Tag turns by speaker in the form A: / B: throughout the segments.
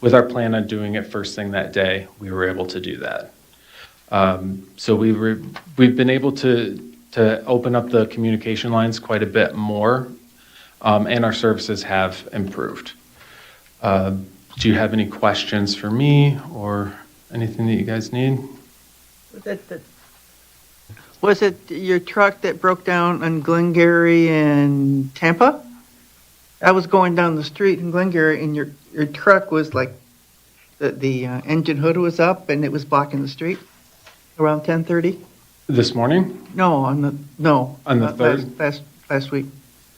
A: With our plan on doing it first thing that day, we were able to do that. Um, So we were, we've been able to, to open up the communication lines quite a bit more, um, and our services have improved. Uh, Do you have any questions for me or anything that you guys need?
B: That- that- Was it your truck that broke down on Glengarry and Tampa? I was going down the street in Glengarry and your, your truck was like, the, the uh, engine hood was up and it was blocking the street around 10:30?
A: This morning,
B: No, on the, no.
A: On the
B: uh, last-
A: third?
B: Last, last week.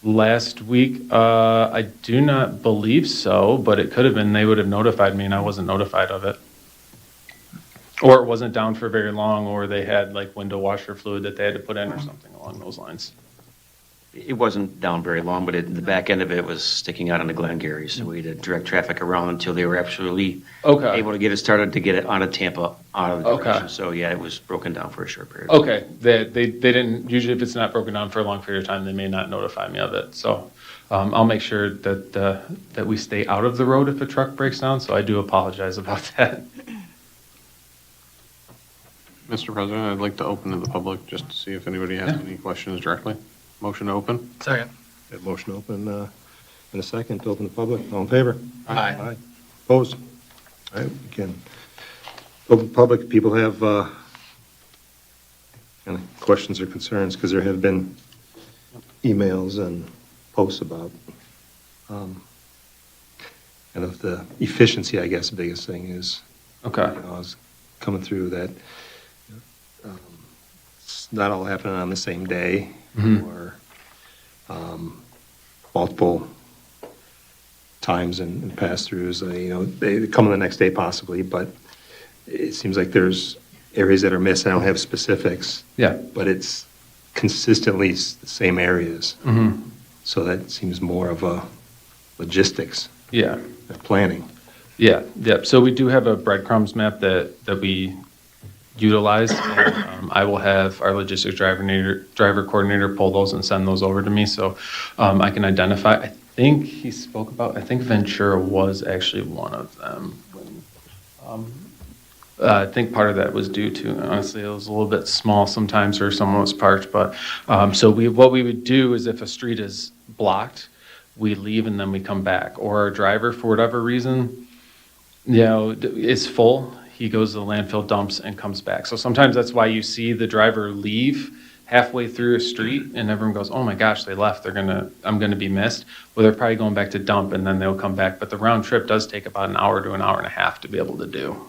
A: last week, uh, I do not believe so, but it could have been, they would have notified me and I wasn't notified of it. Or it wasn't down for very long, or they had like window washer fluid that they had to put in or something along those lines.
C: It wasn't down very long, but it, the back end of it was sticking out onto Glengarry, so we had to direct traffic around until they were absolutely
A: Okay.
C: able to get it started to get it out of Tampa, out of the
A: Okay.
C: direction. So yeah, it was broken down for a short period.
A: Okay, they, they, they didn't, usually if it's not broken down for a long period of time, they may not notify me of it. So um, I'll make sure that, uh, that we stay out of the road if a truck breaks down, so I do apologize about that.
D: Mr. President, I'd like to open to the public just to see if anybody has any questions directly. Motion to open?
E: Second.
F: Got a motion to open, uh, in a second, to open the public, all in favor?
E: Aye.
F: Aye. Opposed? All right, we can, open public, people have, uh, any questions or concerns, because there have been emails and posts about, um, and of the efficiency, I guess, the biggest thing is,
A: Okay,
F: you know, I was coming through that um, it's not all happening on the same day
A: Mhm.
F: or um, multiple times and, and pass throughs. Uh, you know, they they come on the next day possibly, but it seems like there's areas that are missed. I don't have specifics,
A: yeah.
F: but it's consistently s- the same areas.
A: hmm
F: So that seems more of a logistics
A: Yeah,
F: and planning.
A: yeah, yeah. So we do have a breadcrumbs map that, that we utilize. and, um, I will have our logistics driver, nator- driver coordinator pull those and send those over to me, so um, I can identify. I think he spoke about, I think Ventura was actually one of them. Um, uh, I think part of that was due to, honestly, it was a little bit small sometimes where someone was parked, but, um, so we, what we would do is if a street is blocked, we leave and then we come back, or our driver, for whatever reason, you know, d- is full, he goes to the landfill, dumps, and comes back. So sometimes that's why you see the driver leave halfway through a street, and everyone goes, "Oh my gosh, they left. They're gonna, I'm gonna be missed." Well, they're probably going back to dump, and then they'll come back. But the round trip does take about an hour to an hour and a half to be able to do.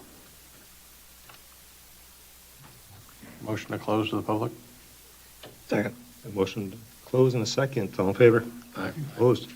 D: Motion to close to the public?
F: Second. motion to close in a second. All in favor? Aye. Opposed?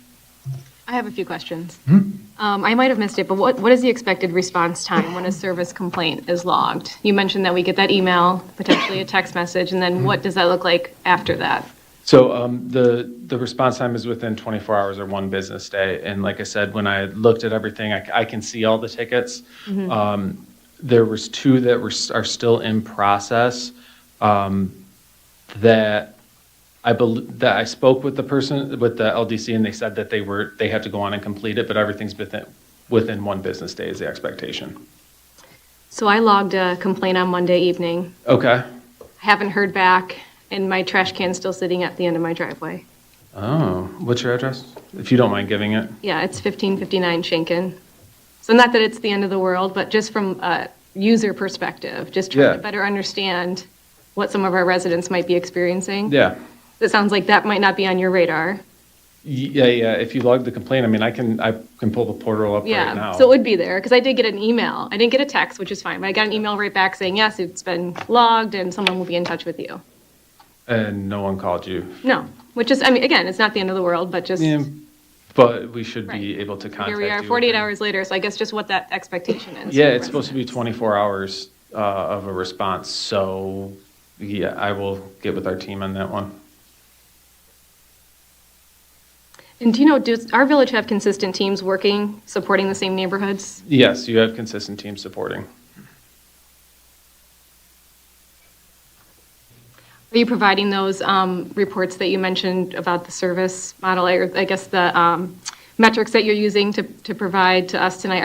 G: I have a few questions.
A: Hmm?
G: Um, I might have missed it, but what, what is the expected response time when a service complaint is logged? You mentioned that we get that email, potentially a text message, and
A: Hmm.
G: then what does that look like after that?
A: So um, the the response time is within 24 hours or one business day. And like I said, when I looked at everything, I, c- I can see all the tickets. Um, there was two that were s- are still in process um, that I bel that I spoke with the person with the LDC and they said that they were they have to go on and complete it, but everything's within within one business day is the expectation.
G: So I logged a complaint on Monday evening.
A: Okay.
G: I haven't heard back, and my trash can's still sitting at the end of my driveway.
A: Oh, what's your address? If you don't mind giving it.
G: Yeah, it's 1559 Shinken. So not that it's the end of the world, but just from a user perspective, just trying
A: Yeah.
G: to better understand what some of our residents might be experiencing.
A: Yeah.
G: It sounds like that might not be on your radar.
A: Yeah, yeah. If you log the complaint, I mean, I can, I can pull the portal up right
G: Yeah,
A: now.
G: so it would be there, because I did get an email. I didn't get a text, which is fine, but I got an email right back saying, yes, it's been logged and someone will be in touch with you.
A: And no one called you.
G: No, which is, I mean, again, it's not the end of the world, but just,
A: Yeah,
G: here
A: But we should be
G: Right.
A: able to contact you.
G: we are,
A: within-
G: 48 hours later, so I guess just what that expectation is.
A: Yeah,
G: for
A: it's supposed to be
G: residents.
A: 24 hours uh, of a response, so yeah, I will get with our team on that one.
G: And do you know, does our village have consistent teams working, supporting the same neighborhoods?
A: Yes, you have consistent team supporting.
G: Are you providing those um, reports that you mentioned about the service model, or I guess the um, metrics that you're using to, to provide to us tonight?